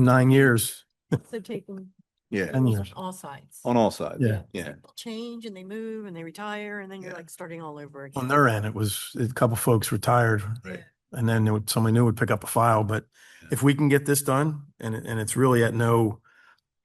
nine years, So taking Yeah, ten years. all sides. on all sides. Yeah. Yeah. People Change and they move and they retire and then you're Yeah. like starting all over again. On their end, it was, a couple folks retired. Right. And then there would- somebody new would pick up a file, but if we can get this done and, it- and it's really at no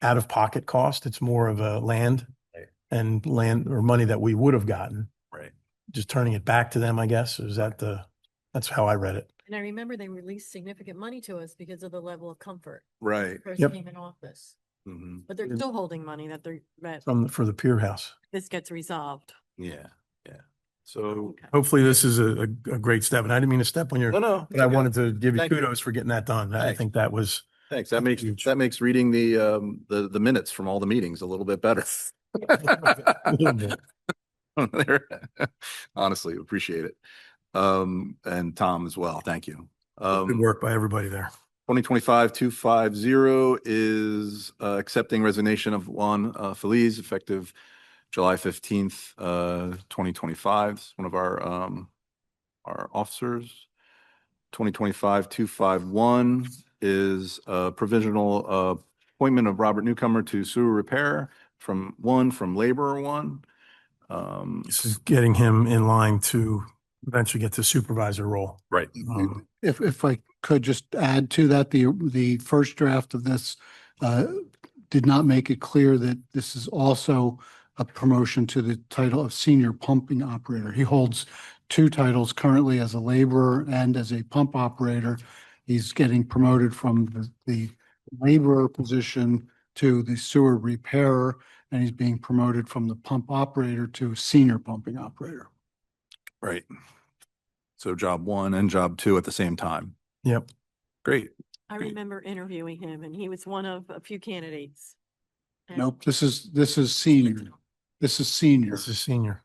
out of pocket cost, it's more of a land Right. and land or money that we would have gotten. Right. Just turning it back to them, I guess, is that the, that's how I read it. And I remember they released significant money to us because of the level of comfort. Right. First Yep. came in office, Mhm. but they're Mm. still holding money that they're, that From, the- for the Pier House. this gets resolved. Yeah, yeah. So, Okay. Hopefully this is a, a, a great step and I didn't mean to step on your, no, no. but I wanted to give you Thank you. kudos for getting that done. I Thanks. think that was, Thanks. That makes, Huge. that makes reading the, um, the, the minutes from all the meetings a little bit better. little bit. Honestly, appreciate it. Um, and Tom as well. Thank you. good Um, work by everybody there. twenty twenty-five two five zero is, uh, accepting resignation of Juan, uh, Feliz effective July fifteenth, uh, twenty twenty-five. It's one of our, um, our officers. Twenty twenty-five two five one is, uh, provisional, uh, appointment of Robert Newcomer to sewer repair from one, from laborer one. Um, This is getting him in line to eventually get the supervisor role. Right. Um, If, if I could just add to that, the, the first draft of this uh, did not make it clear that this is also a promotion to the title of senior pumping operator. He holds two titles currently as a laborer and as a pump operator. He's getting promoted from the- the laborer position to the sewer repairer, and he's being promoted from the pump operator to senior pumping operator. Right. So job one and job two at the same time. Yep. Great. I Great. remember interviewing him and he was one of a few candidates. And- Nope, this is, this is senior. This is senior. This is senior.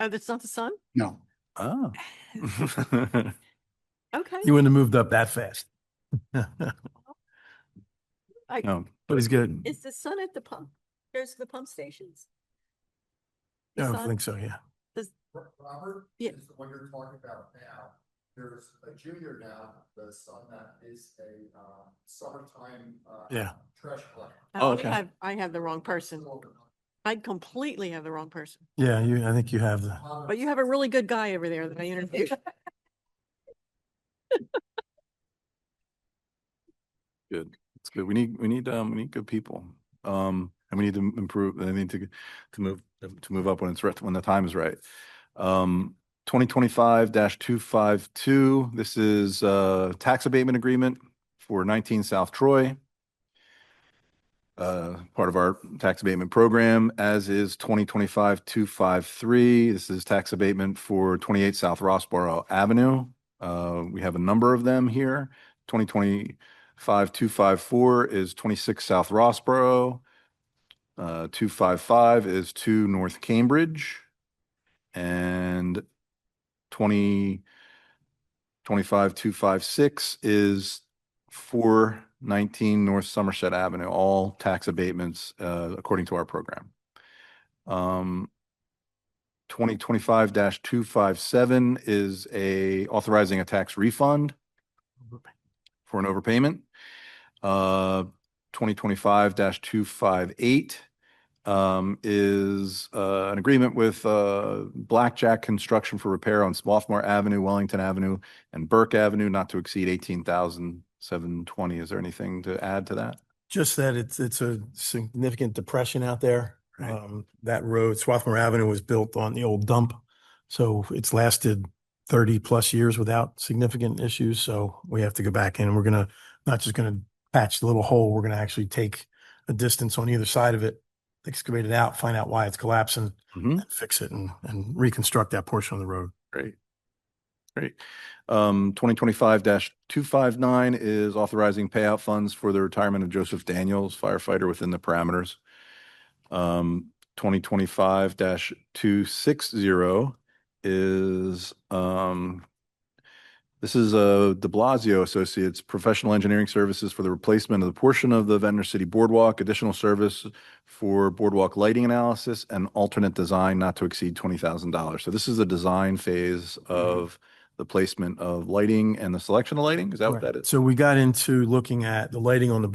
Oh, that's not the son? No. Oh. Okay. He wouldn't have moved up that fast. But I- No, he's good. Is the son at the pump? Goes to the pump stations? The I don't son? think so, yeah. Ro- Robert? Yeah. Is the one you're talking about now. There's a junior now, the son that is a uh, summertime. uh, Yeah. Trash collector. I Oh, think okay. I've- I have the wrong person. I completely have the wrong person. Yeah, you, I think you have the, uh, But you have a really good guy over there that I interviewed. good. It's good. We need, we need, um, we need good people. Um, and we need to m- improve, and I need to, g- to move, to move up when it's right, when the time is right. Um, twenty twenty-five two five two, this is uh tax abatement agreement for nineteen South Troy. Uh, part of our tax abatement program, as is twenty twenty-five two five three. This is tax abatement for twenty-eight South Rossboro Avenue. Uh, we have a number of them here. Twenty twenty-five two five four is twenty-six South Rossboro. Uh, two five five is two North Cambridge. And twenty twenty-five two five six is four nineteen North Somerset Avenue, all tax abatements, uh, according to our program. Um, twenty twenty-five two five seven is a authorizing a tax refund for an overpayment. Uh, twenty twenty-five two five eight um, is, uh, an agreement with, uh, Blackjack Construction for Repair on Swarthmore Avenue, Wellington Avenue, and Burke Avenue, not to exceed eighteen thousand seven twenty. Is there anything to add to that? just that it's, it's a significant depression out there. Right. Um, that road, Swarthmore Avenue was built on the old dump. So it's lasted thirty plus years without significant issues. So we have to go back in and we're gonna, not just gonna patch the little hole, we're gonna actually take a distance on either side of it, excavate it out, find out why it's collapsing, Mhm. and fix it and, and reconstruct that portion of the road. Great. Great. Um, twenty twenty-five two five nine is authorizing payout funds for the retirement of Joseph Daniels firefighter within the parameters. Um, twenty twenty-five two six zero is, um, this is, uh, De Blasio Associates Professional Engineering Services for the replacement of the portion of the Ventnor City Boardwalk, additional service for boardwalk lighting analysis and alternate design not to exceed twenty thousand dollars. So this is the design phase of the placement of lighting and the selection of lighting. Is that what Correct. that is? So we got into looking at the lighting on the